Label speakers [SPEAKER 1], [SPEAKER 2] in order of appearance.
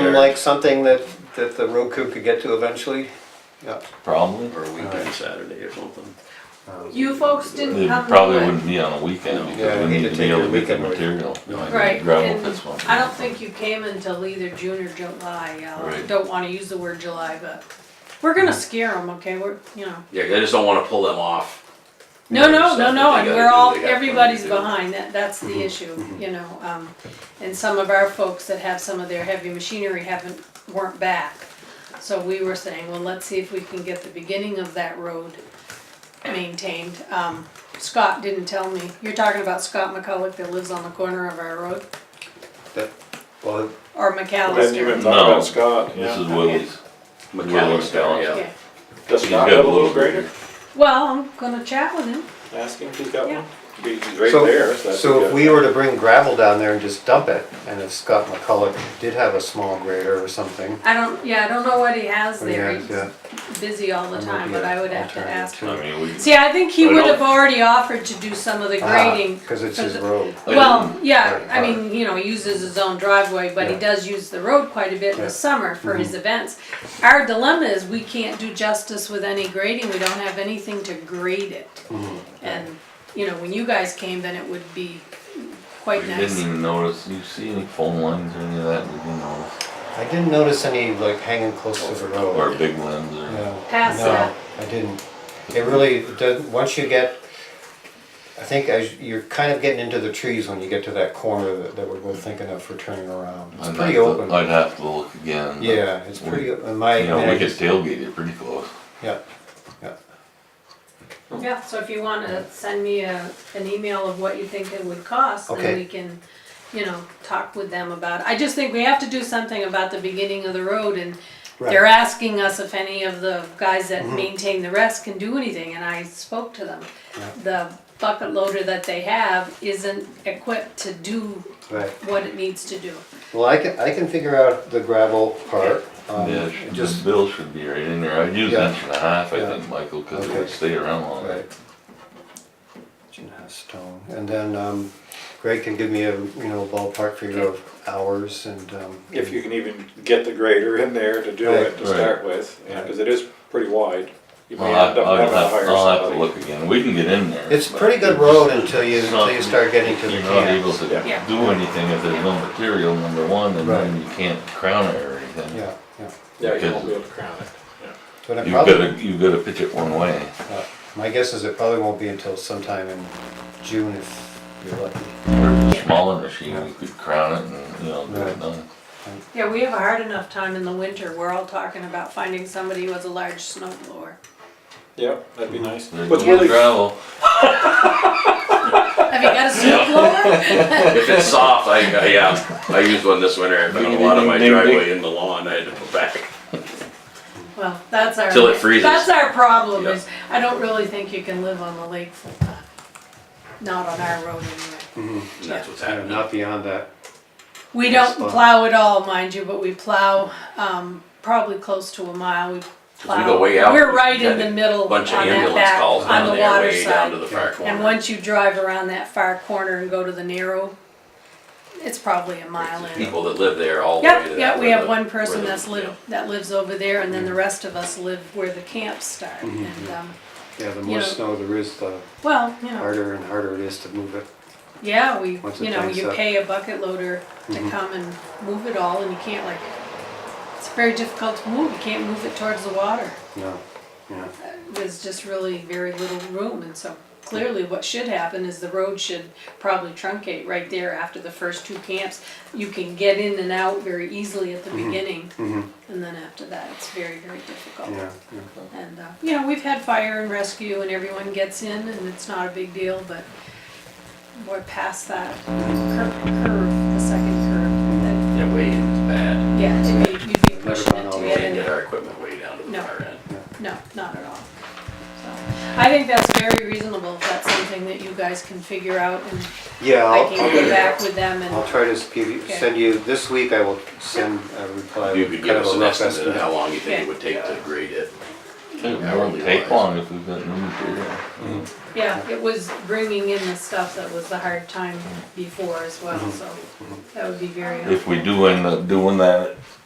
[SPEAKER 1] seem
[SPEAKER 2] there.
[SPEAKER 1] like something that, that the road crew could get to eventually? Yeah.
[SPEAKER 3] Probably.
[SPEAKER 2] Or a weekend Saturday or something.
[SPEAKER 4] You folks didn't
[SPEAKER 3] It
[SPEAKER 4] have. the
[SPEAKER 3] probably
[SPEAKER 4] wood.
[SPEAKER 3] wouldn't be on a weekend
[SPEAKER 1] Yeah,
[SPEAKER 3] because
[SPEAKER 1] we
[SPEAKER 3] we
[SPEAKER 1] need
[SPEAKER 3] need
[SPEAKER 1] to
[SPEAKER 3] to be
[SPEAKER 1] take
[SPEAKER 3] able
[SPEAKER 1] a
[SPEAKER 3] to get the
[SPEAKER 1] weekend break.
[SPEAKER 3] material.
[SPEAKER 2] No, I
[SPEAKER 3] Right.
[SPEAKER 4] Right,
[SPEAKER 3] gravel pits
[SPEAKER 4] and
[SPEAKER 3] one.
[SPEAKER 4] I don't think you came until either June or July, I
[SPEAKER 3] Right.
[SPEAKER 4] don't wanna use the word July, but we're gonna scare them, okay, we're, you know.
[SPEAKER 2] Yeah, I just don't wanna pull them off.
[SPEAKER 4] No, no,
[SPEAKER 2] Stuff
[SPEAKER 4] no,
[SPEAKER 2] that
[SPEAKER 4] no,
[SPEAKER 2] they
[SPEAKER 4] and
[SPEAKER 2] gotta
[SPEAKER 4] we're
[SPEAKER 2] do,
[SPEAKER 4] all,
[SPEAKER 2] they got Mm-hmm. plenty to
[SPEAKER 4] everybody's
[SPEAKER 2] do.
[SPEAKER 4] behind, that, that's
[SPEAKER 5] Mm-hmm.
[SPEAKER 4] the issue, you know, um, and some of our folks that have some of their heavy machinery haven't, weren't back. So we were saying, well, let's see if we can get the beginning of that road maintained, um, Scott didn't tell me, you're talking about Scott McCulloch that lives on the corner of our road,
[SPEAKER 1] That- Well,
[SPEAKER 4] or
[SPEAKER 5] I Didn't even
[SPEAKER 4] McAllister?
[SPEAKER 5] talk
[SPEAKER 3] No.
[SPEAKER 5] about Scott,
[SPEAKER 3] This
[SPEAKER 5] yeah.
[SPEAKER 3] is Willie's.
[SPEAKER 2] McAllister,
[SPEAKER 3] Willie's.
[SPEAKER 2] yeah.
[SPEAKER 4] Okay.
[SPEAKER 5] Does
[SPEAKER 3] He's
[SPEAKER 5] Scott
[SPEAKER 3] got
[SPEAKER 5] have
[SPEAKER 3] a
[SPEAKER 5] a little
[SPEAKER 3] little
[SPEAKER 5] grader?
[SPEAKER 4] Well, I'm gonna chat with him.
[SPEAKER 5] Ask him if he's got
[SPEAKER 4] Yeah.
[SPEAKER 5] one. Be- He's right
[SPEAKER 1] So-
[SPEAKER 5] there, so that's.
[SPEAKER 1] so if
[SPEAKER 5] good.
[SPEAKER 1] we were to bring gravel down there and just dump it, and if Scott McCulloch did have a small grader or something.
[SPEAKER 4] I don't, yeah, I don't know what he has
[SPEAKER 1] what do you
[SPEAKER 4] there.
[SPEAKER 1] guys- yeah,
[SPEAKER 4] He's busy all the
[SPEAKER 1] that might
[SPEAKER 4] time,
[SPEAKER 1] be
[SPEAKER 4] but
[SPEAKER 1] an
[SPEAKER 4] I would have to
[SPEAKER 1] alternative
[SPEAKER 4] ask
[SPEAKER 1] too.
[SPEAKER 3] I mean, we.
[SPEAKER 4] See, I think he
[SPEAKER 2] But I
[SPEAKER 4] would have
[SPEAKER 2] don't-
[SPEAKER 4] already offered to do some of the
[SPEAKER 1] Ah,
[SPEAKER 4] grading.
[SPEAKER 1] Cause it's
[SPEAKER 4] for
[SPEAKER 1] his
[SPEAKER 4] the-
[SPEAKER 1] road.
[SPEAKER 4] Well, yeah,
[SPEAKER 1] Right,
[SPEAKER 4] I
[SPEAKER 1] right.
[SPEAKER 4] mean, you know, he uses his own driveway, but he
[SPEAKER 1] Yeah.
[SPEAKER 4] does use the road quite a bit in
[SPEAKER 1] Yeah. Mm-hmm.
[SPEAKER 4] the summer for his events. Our dilemma is we can't do justice with any grading, we don't have anything to grade it.
[SPEAKER 1] Mm-hmm.
[SPEAKER 4] And, you know, when you guys came, then it would be
[SPEAKER 3] We
[SPEAKER 4] quite
[SPEAKER 3] didn't
[SPEAKER 4] nice.
[SPEAKER 3] even notice, you see any phone lines or any of that, we didn't notice,
[SPEAKER 1] I didn't notice any like hanging close to the road.
[SPEAKER 3] or big lens or,
[SPEAKER 1] No,
[SPEAKER 4] Pass that.
[SPEAKER 1] no, I didn't. It really, does- once you get, I think as, you're kind of getting into the trees when you get to that corner that, that we're both thinking of for turning around. It's
[SPEAKER 3] I'd
[SPEAKER 1] pretty
[SPEAKER 3] have to-
[SPEAKER 1] open.
[SPEAKER 3] I'd have to look again. but
[SPEAKER 1] Yeah, it's
[SPEAKER 3] we-
[SPEAKER 1] pretty, o- in
[SPEAKER 3] You know,
[SPEAKER 1] my,
[SPEAKER 3] we could tailgate it pretty close.
[SPEAKER 1] yeah, yeah.
[SPEAKER 4] Yeah, so if you wanna send me a, an email of what you think it would cost,
[SPEAKER 1] Okay.
[SPEAKER 4] then we can, you know, talk with them about. it. I just think we have to do something about the beginning of the road and they're
[SPEAKER 1] Right. Mm-hmm.
[SPEAKER 4] asking us if any of the guys that maintain the rest can do anything and I spoke to them. The bucket loader that they have isn't equipped to do
[SPEAKER 1] Right.
[SPEAKER 4] what it needs to do.
[SPEAKER 1] Well, I can, I can figure out the gravel part. um,
[SPEAKER 3] Yeah, it should- the
[SPEAKER 1] Just,
[SPEAKER 3] bill should be right in there, I'd use
[SPEAKER 1] Yeah.
[SPEAKER 3] an inch and a half, I
[SPEAKER 1] Yeah.
[SPEAKER 3] think, Michael, cause it
[SPEAKER 1] Okay.
[SPEAKER 3] would stay around longer.
[SPEAKER 1] right. Gina has stone. And then um, Greg can give me a, you know, ballpark figure of hours and. um,
[SPEAKER 5] If you can even get the grader in there to do
[SPEAKER 1] Right.
[SPEAKER 5] it to
[SPEAKER 3] Right.
[SPEAKER 5] start with, yeah, cause it is pretty wide. You may
[SPEAKER 3] I'll
[SPEAKER 5] end
[SPEAKER 3] have,
[SPEAKER 5] up
[SPEAKER 3] I'll
[SPEAKER 5] having to
[SPEAKER 3] have,
[SPEAKER 5] hire
[SPEAKER 3] I'll have to
[SPEAKER 5] somebody.
[SPEAKER 3] look again, we can get in there.
[SPEAKER 1] It's
[SPEAKER 3] but
[SPEAKER 1] pretty good
[SPEAKER 3] we're just-
[SPEAKER 1] road until you,
[SPEAKER 3] it's not-
[SPEAKER 1] until you start getting to the
[SPEAKER 3] You're not able
[SPEAKER 1] camps.
[SPEAKER 3] to
[SPEAKER 4] Yeah.
[SPEAKER 3] do anything if there's no material, number one, and then you can't crown it or anything.
[SPEAKER 1] Yeah, yeah.
[SPEAKER 5] Yeah, you won't be able to crown it, yeah.
[SPEAKER 1] But it
[SPEAKER 3] You've
[SPEAKER 1] probably,
[SPEAKER 3] gotta, you've gotta pitch it one way.
[SPEAKER 1] uh, my guess is it probably won't be until sometime in June if you're lucky.
[SPEAKER 3] Or a smaller machine, you could crown it and, you know, do
[SPEAKER 1] Right.
[SPEAKER 3] it done.
[SPEAKER 4] Yeah, we have a hard enough time in the winter. We're all talking about finding somebody who has a large snow blower.
[SPEAKER 5] Yep, that'd be nice.
[SPEAKER 3] There's
[SPEAKER 5] Mm-hmm. What's
[SPEAKER 3] no
[SPEAKER 5] really,
[SPEAKER 1] Oh.
[SPEAKER 3] gravel.
[SPEAKER 4] Have you got a snow blower?
[SPEAKER 2] If it's soft, I, I- yeah, I used one this winter, I found a lot of my driveway in the lawn, I had to put back.
[SPEAKER 4] Well, that's our.
[SPEAKER 2] Till it freezes.
[SPEAKER 4] That's our problem
[SPEAKER 2] Yeah.
[SPEAKER 4] is, I don't really think you can live on the lake full time. Not on our road anyway.
[SPEAKER 2] And that's what's
[SPEAKER 1] Yeah,
[SPEAKER 2] happening.
[SPEAKER 1] Uh, Not beyond that.
[SPEAKER 4] We don't
[SPEAKER 1] Spot.
[SPEAKER 4] plow at all, mind you, but we plow, um, probably close to a mile. We plow.
[SPEAKER 2] go way out,
[SPEAKER 4] We're
[SPEAKER 2] we've
[SPEAKER 4] right in
[SPEAKER 2] got
[SPEAKER 4] the
[SPEAKER 2] a
[SPEAKER 4] middle on
[SPEAKER 2] Bunch of
[SPEAKER 4] that
[SPEAKER 2] ambulance
[SPEAKER 4] back,
[SPEAKER 2] calls
[SPEAKER 4] on
[SPEAKER 2] down
[SPEAKER 4] the
[SPEAKER 2] there,
[SPEAKER 4] water
[SPEAKER 2] way down to
[SPEAKER 4] side.
[SPEAKER 2] the far
[SPEAKER 4] And
[SPEAKER 2] corner.
[SPEAKER 4] once you drive around that far corner and go to the narrow, it's probably a mile in.
[SPEAKER 2] People that live there all the way to
[SPEAKER 4] Yep,
[SPEAKER 2] that-
[SPEAKER 4] yep, we
[SPEAKER 2] where
[SPEAKER 4] have
[SPEAKER 2] the-
[SPEAKER 4] one
[SPEAKER 2] where
[SPEAKER 4] person
[SPEAKER 2] the-
[SPEAKER 4] that's
[SPEAKER 2] yeah.
[SPEAKER 4] live, that lives over there, and then
[SPEAKER 1] Mm-hmm.
[SPEAKER 4] the rest of us live where the camps start, and, um,
[SPEAKER 1] Yeah, the
[SPEAKER 4] You
[SPEAKER 1] more
[SPEAKER 4] know-
[SPEAKER 1] snow there is, the
[SPEAKER 4] well, you know,
[SPEAKER 1] harder and harder it is to move it.
[SPEAKER 4] yeah, we,
[SPEAKER 1] Once it
[SPEAKER 4] you know,
[SPEAKER 1] tanks
[SPEAKER 4] you
[SPEAKER 1] up. Mm-hmm.
[SPEAKER 4] pay a bucket loader to come and move it all, and you can't like, it's very difficult to move, you can't move it towards the water.
[SPEAKER 1] No, yeah.
[SPEAKER 4] There's just really very little room, and so clearly what should happen is the road should probably truncate right there after the first two camps. You can get in and out very easily at the beginning,
[SPEAKER 1] Mhm.
[SPEAKER 4] and then after that, it's very, very difficult.
[SPEAKER 1] Yeah, yeah.
[SPEAKER 4] And, uh, you know, we've had fire and rescue and everyone gets in and it's not a big deal, but we're past that curve, curve, the second curve. that-
[SPEAKER 2] Yeah, way in, it's bad.
[SPEAKER 4] Yeah, it'd be- you'd be pushing
[SPEAKER 1] gone
[SPEAKER 4] it
[SPEAKER 1] all
[SPEAKER 4] to
[SPEAKER 1] the
[SPEAKER 2] We
[SPEAKER 4] get
[SPEAKER 2] can't
[SPEAKER 4] in.
[SPEAKER 2] get our equipment way down to the
[SPEAKER 4] No.
[SPEAKER 2] far end.
[SPEAKER 4] No, not at all. So, I think that's very reasonable. If that's something that you guys can figure out and
[SPEAKER 1] Yeah,
[SPEAKER 4] I
[SPEAKER 1] I'll,
[SPEAKER 4] can
[SPEAKER 1] I'll,
[SPEAKER 4] go back with them
[SPEAKER 1] I'll
[SPEAKER 4] and,
[SPEAKER 1] try to give you,
[SPEAKER 4] Okay.
[SPEAKER 1] send you, this week I will send a reply.
[SPEAKER 2] You
[SPEAKER 1] with
[SPEAKER 2] could
[SPEAKER 1] kind
[SPEAKER 2] give
[SPEAKER 1] of
[SPEAKER 2] us
[SPEAKER 1] a
[SPEAKER 2] an
[SPEAKER 1] rough
[SPEAKER 2] estimate of how long you think
[SPEAKER 4] Yeah.
[SPEAKER 2] it would take to grade it.
[SPEAKER 3] It
[SPEAKER 2] hourly
[SPEAKER 3] won't take
[SPEAKER 2] wise.
[SPEAKER 3] long if we've got new material.
[SPEAKER 4] yeah, it was bringing in the stuff that was the hard
[SPEAKER 1] Mm-hmm.
[SPEAKER 4] time before as well, so that would be very helpful.
[SPEAKER 3] If we do end up doing that,